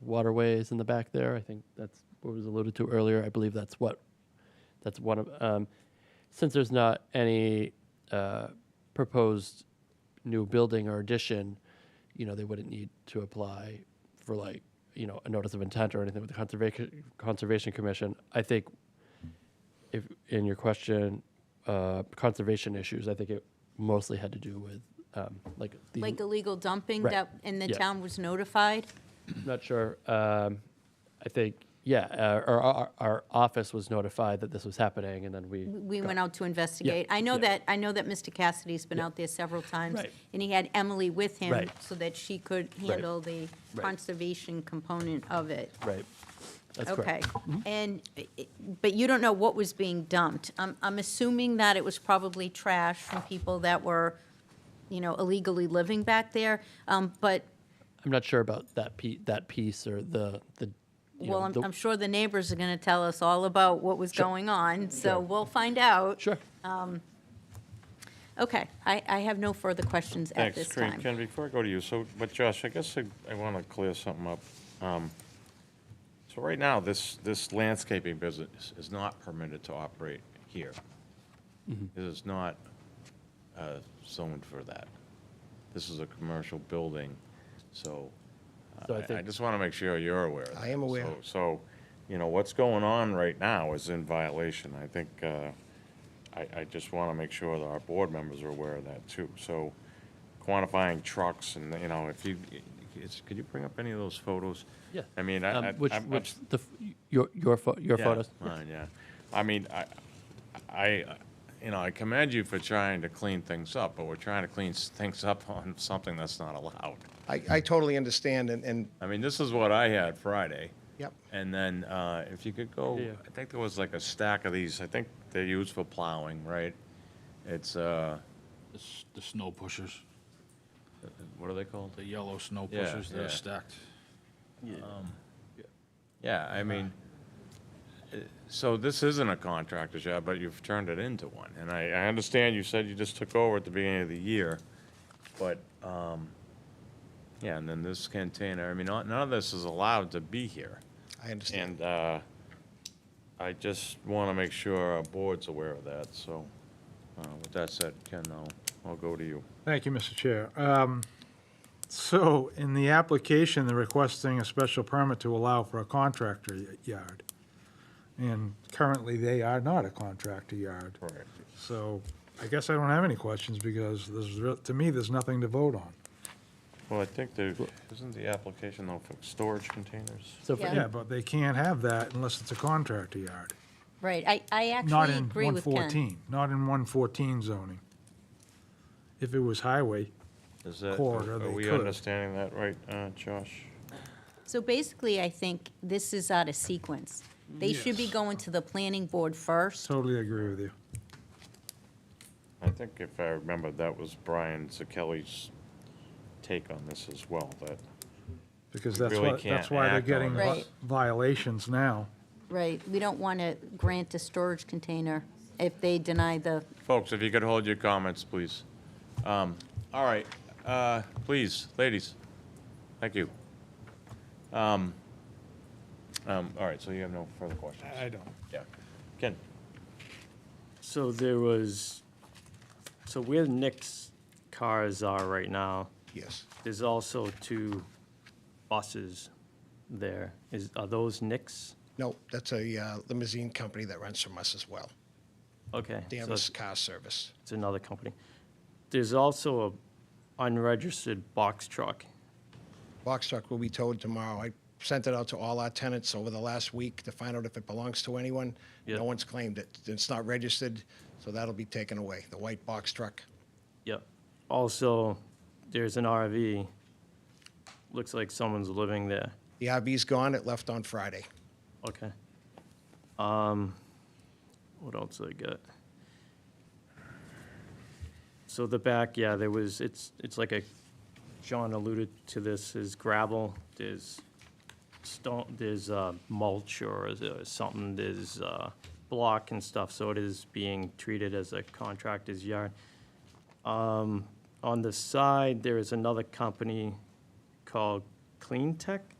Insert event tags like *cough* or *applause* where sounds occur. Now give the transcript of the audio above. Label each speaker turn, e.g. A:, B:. A: waterways in the back there. I think that's what was alluded to earlier. I believe that's what that's one of um, since there's not any uh, proposed new building or addition, you know, they wouldn't need to apply for like you know a notice of intent or anything with the conservation conservation commission. I think if in your question, uh, conservation issues, I think it mostly had to do with um, like the
B: Like illegal dumping
A: Right.
B: that, and the
A: Yeah.
B: town was notified?
A: Not sure. Um, I think, yeah, uh, our, our, our office was notified that this was happening, and then we.
B: We
A: got-
B: went out to investigate. I know
A: yeah.
B: that, I know that Mr. Cassidy's been out there several times,
A: Right.
B: and he had Emily with him
A: Right.
B: so that she could handle the
A: Right.
B: conservation component of it.
A: Right. That's
B: Okay,
A: correct. Mm-hmm.
B: and, but you don't know what was being dumped. I'm, I'm assuming that it was probably trash from people that were, you know, illegally living back there. Um, But,
A: I'm not sure about that pe, that piece or the, the. you know,
B: well, I'm,
A: the-
B: I'm sure the neighbors are going to tell us all about what was going on, so
A: Sure.
B: we'll find out.
A: Sure.
B: Okay, I, I have no further questions at
C: Thanks,
B: this
C: Ken-
B: time.
C: Ken, before I go to you, so, but Josh, I guess I, I want to clear something up. Um, So right now, this, this landscaping business is not permitted to operate here. It is not uh, zoned for that. This is a commercial building, so
A: So I
C: I- I
A: think-
C: just want to make sure you're aware. of
D: I
C: that.
D: am aware.
C: So- So, you know, what's going on right now is in violation. I think, uh, I, I just want to make sure that our board members are aware of that too. So quantifying trucks and, you know, if you, it's, could you bring up any of those photos?
A: Yeah.
C: I mean, I,
A: Um,
C: I.
A: Which,
C: I'm- I'm-
A: which, the, f- your, your, pho- your
C: yeah,
A: photos.
C: Mine, yeah. I mean, I, I, you know, I commend you for trying to clean things up, but we're trying to clean s- things up *laughs* on something that's not allowed.
D: I, I totally understand, and, and,
C: I mean, this is what I had Friday.
D: yep,
C: And then uh, if you could go,
A: Yeah.
C: I think there was like a stack of these, I think they're used for plowing, right? It's, uh,
E: The s- The snow pushers,
C: what are they called?
E: the yellow snow
C: Yeah,
E: pushers that
C: yeah.
E: are stacked.
C: Yeah, I mean, uh, so this isn't a contractor's job, but you've turned it into one. And I, I understand you said you just took over at the beginning of the year, but, um, yeah, and then this container, I mean, none none of this is allowed to be here.
D: I understand.
C: And uh, I just want to make sure our board's aware of that, so uh, with that said, Ken, I'll, I'll go to you.
F: Thank you, Mr. Chair. Um, So, in the application, they're requesting a special permit to allow for a contractor y- yard. And currently, they are not a contractor yard.
C: Correct.
F: So, I guess I don't have any questions because there's, re- to me, there's nothing to vote on.
C: Well, I think there, isn't the application though for storage containers?
A: So for-
B: Yeah.
F: Yeah, but they can't have that unless it's a contractor yard.
B: Right, I, I
F: Not
B: actually
F: in
B: agree with Ken.
F: 114, not in 114 zoning. If it was highway,
C: Is that,
F: Corridor,
C: are
F: they
C: we
F: could.
C: understanding that right, uh, Josh?
B: So basically, I think this is out of sequence. They should be
F: Yes.
B: going to the planning board first.
F: totally agree with you.
C: I think if I remember, that was Brian Zakelli's take on this as well, that,
F: Because
C: We
F: that's
C: really
F: why, that's
C: can't
F: why they're
C: act on
F: getting
B: it. Right.
F: violations now.
B: Right, we don't want to grant a storage container if they deny the,
C: folks, if you could hold your comments, please. Um, All right, uh, please, ladies, thank you. Um, um, All right, so you have no further questions?
F: don't.
C: Yeah. Ken?
G: So there was, so where Nick's cars are right now,
D: Yes,
G: there's also two buses there. Is, are those Nick's?
D: no, that's a uh, limousine company that runs from us as well,
G: Okay. so
D: Dan's Car Service.
G: It's another company. There's also a unregistered box truck.
D: Box truck will be towed tomorrow. I sent it out to all our tenants over the last week to find out if it belongs to anyone.
G: Yeah.
D: No one's claimed it. It's not registered, so that'll be taken away, the white box truck.
G: Yep. Also, there's an RV. Looks like someone's living there.
D: The RV's gone, it left on Friday.
G: Okay. Um, what else I got? So the back, yeah, there was, it's, it's like a, John alluded to this, is gravel, there's stone, there's, uh, mulch or is it something, there's, uh, block and stuff, so it is being treated as a contractor's yard. Um, on the side, there is another company called Clean Tech.